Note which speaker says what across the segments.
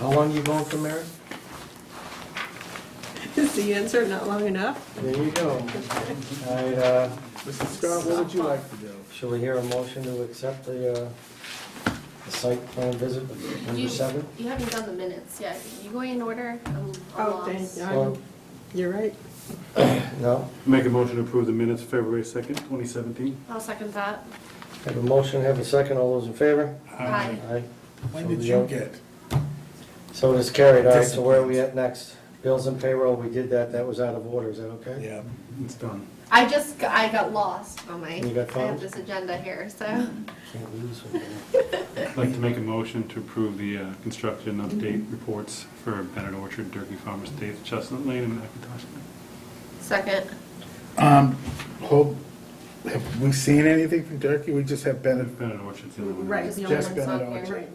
Speaker 1: How long you going for merit?
Speaker 2: Is the answer not long enough?
Speaker 1: There you go. I, uh,
Speaker 3: Mr. Scott, what would you like to do?
Speaker 1: shall we hear a motion to accept the, uh, the site plan visit number
Speaker 4: You-
Speaker 1: seven?
Speaker 4: You haven't done the minutes yet. You going in order? um, I'm I'm
Speaker 2: Oh,
Speaker 4: lost.
Speaker 2: thank
Speaker 1: Well-
Speaker 2: God. You're right.
Speaker 1: No?
Speaker 5: Make a motion to approve the minutes of February 2nd, 2017.
Speaker 4: I'll second that.
Speaker 1: Have a motion, have a second, all those in favor?
Speaker 4: Aye.
Speaker 1: Aye.
Speaker 3: When
Speaker 1: So
Speaker 3: did
Speaker 1: the-
Speaker 3: you get?
Speaker 1: So it is carried, all right, so where are we at next? Bills and payroll, we did that, that was out of order, is that okay?
Speaker 3: Yeah.
Speaker 5: It's done.
Speaker 4: I just, g- I got lost on my,
Speaker 1: You got
Speaker 4: I have
Speaker 1: found?
Speaker 4: this agenda here, so.
Speaker 1: Can't lose one.
Speaker 5: I'd like to make a motion to approve the uh, construction update reports for Bennett Orchard, Turkey Farm Estates, Chestnut Lane, and McIntosh Lane.
Speaker 4: Second.
Speaker 3: Um, hope, have we seen anything from Turkey? We just have Bennett.
Speaker 5: Bennett Orchard's the only one.
Speaker 2: Right.
Speaker 4: It's the only
Speaker 3: Just
Speaker 4: ones on
Speaker 3: Bennett
Speaker 4: here.
Speaker 3: Orchard.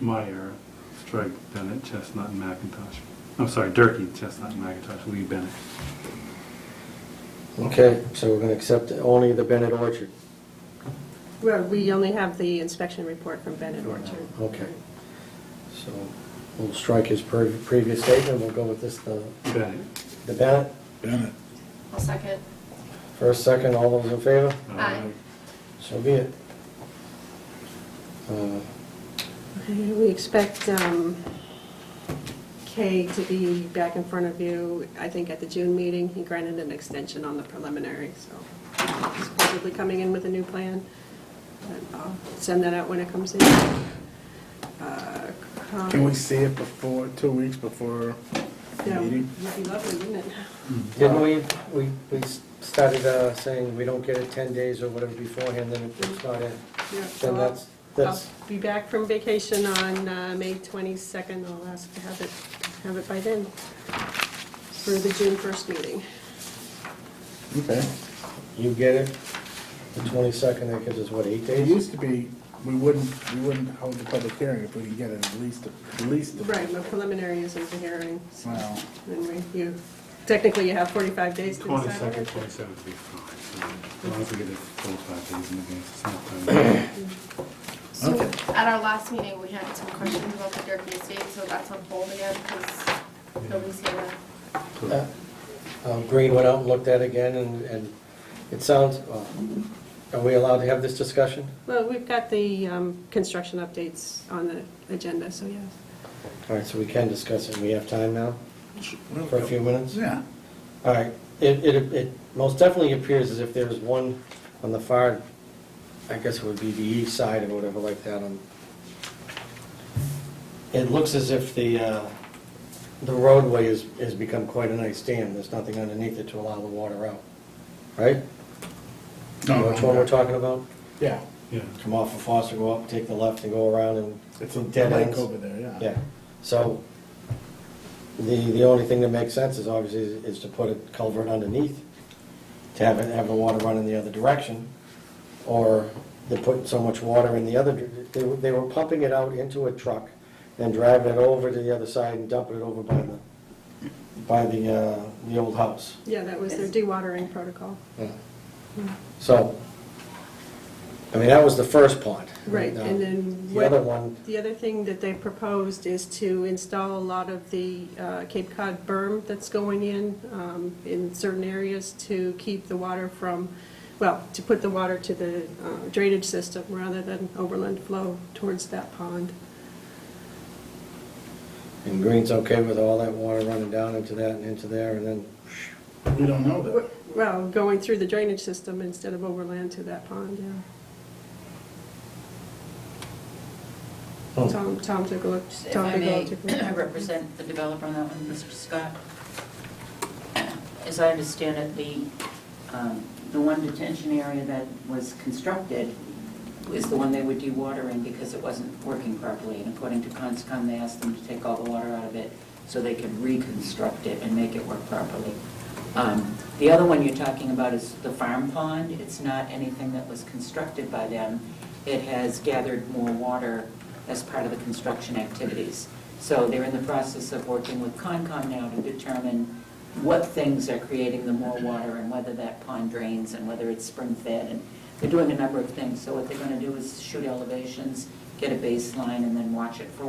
Speaker 5: Meyer, strike Bennett, Chestnut, and McIntosh. I'm sorry, Durkey, Chestnut, and McIntosh, Lee Bennett.
Speaker 1: Okay, so we're gonna accept only the Bennett Orchard.
Speaker 2: Well, we only have the inspection report from Bennett Orchard.
Speaker 1: Okay. So we'll strike his pre- previous statement, we'll go with this, the
Speaker 5: Bennett.
Speaker 1: the Bennett.
Speaker 3: Bennett.
Speaker 4: I'll second.
Speaker 1: First, second, all those in favor?
Speaker 4: Aye.
Speaker 1: So be it. Uh,
Speaker 2: Okay, We expect um, Kay to be back in front of you, I think, at the June meeting. He granted an extension on the preliminary, so he's probably coming in with a new plan. But I'll send that out when it comes in. Uh,
Speaker 3: Can we see it before, two weeks before the
Speaker 2: Yeah, would
Speaker 3: meeting?
Speaker 2: be lovely, wouldn't it?
Speaker 1: Didn't we, we, we started uh, saying we don't get it 10 days or whatever beforehand, then it's not in.
Speaker 2: Yeah, so
Speaker 1: Then
Speaker 2: I'll-
Speaker 1: that's, that's,
Speaker 2: I'll be back from vacation on uh, May 22nd. I'll ask to have it, have it by then for the June 1st meeting.
Speaker 3: Okay.
Speaker 1: you get it, the 22nd, that gives us, what, eight
Speaker 3: It
Speaker 1: days?
Speaker 3: used to be, we wouldn't, we wouldn't hold the public hearing if we could get it at least, at least. a-
Speaker 2: Right, my preliminary isn't the hearing, so
Speaker 3: Wow.
Speaker 2: then we, you, technically you have 45 days to decide. on
Speaker 5: 22nd,
Speaker 2: it.
Speaker 5: 27th would be fine. So As long as we get it full five days in advance, it's not time.
Speaker 4: So
Speaker 3: Okay.
Speaker 4: at our last meeting, we had some questions about the Durkey estate, so that's on hold again because nobody's here.
Speaker 1: Uh, um, Green went out and looked at it again, and, and it sounds, uh, are we allowed to have this discussion?
Speaker 2: Well, we've got the um, construction updates on the agenda, so yes.
Speaker 1: All right, so we can discuss it, we have time now, for a few minutes?
Speaker 3: Yeah.
Speaker 1: All right, it, it, it most definitely appears as if there's one on the far, I guess it would be the east side or whatever like that on. It looks as if the, uh, the roadway has, has become quite a nice dam, there's nothing underneath it to allow the water out, right?
Speaker 3: No,
Speaker 1: Which one we're
Speaker 3: no.
Speaker 1: talking about?
Speaker 3: Yeah.
Speaker 5: Yeah.
Speaker 1: Come off of Foster, go up, take the left and go around and.
Speaker 3: It's a
Speaker 1: Dead
Speaker 3: lake
Speaker 1: ends.
Speaker 3: over there, yeah.
Speaker 1: Yeah, so the, the only thing that makes sense is obviously is is to put a culvert underneath, to have, it- have the water run in the other direction, or they're putting so much water in the other, dir- they, were- they were pumping it out into a truck, then driving it over to the other side and dumping it over by the, by the, uh, the old house.
Speaker 2: Yeah, that was their dewatering protocol.
Speaker 1: So, I mean, that was the first pond.
Speaker 2: Right, and then
Speaker 1: The
Speaker 2: what-
Speaker 1: other one,
Speaker 2: The other thing that they proposed is to install a lot of the uh, Cape Cod berm that's going in, um, in certain areas to keep the water from, well, to put the water to the uh, drainage system rather than overland flow towards that pond.
Speaker 1: and Green's okay with all that water running down into that and into there, and then
Speaker 3: We don't know that.
Speaker 2: Well, going through the drainage system instead of overland to that pond, yeah.
Speaker 1: Hmm.
Speaker 2: Tom, Tom took a look,
Speaker 6: If
Speaker 2: Tom
Speaker 6: I
Speaker 2: took a
Speaker 6: may,
Speaker 2: look. took a look.
Speaker 6: I represent the developer on that one, Mr. Scott. As I understand it, the, um, the one detention area that was constructed is the one they were dewatering because it wasn't working properly. And according to Conscom, they asked them to take all the water out of it so they could reconstruct it and make it work properly. Um, The other one you're talking about is the farm pond. It's not anything that was constructed by them. It has gathered more water as part of the construction activities. So they're in the process of working with Concom now to determine what things are creating the more water and whether that pond drains and whether it's spring fed. And they're doing a number of things. So what they're going to do is shoot elevations, get a baseline, and then watch it for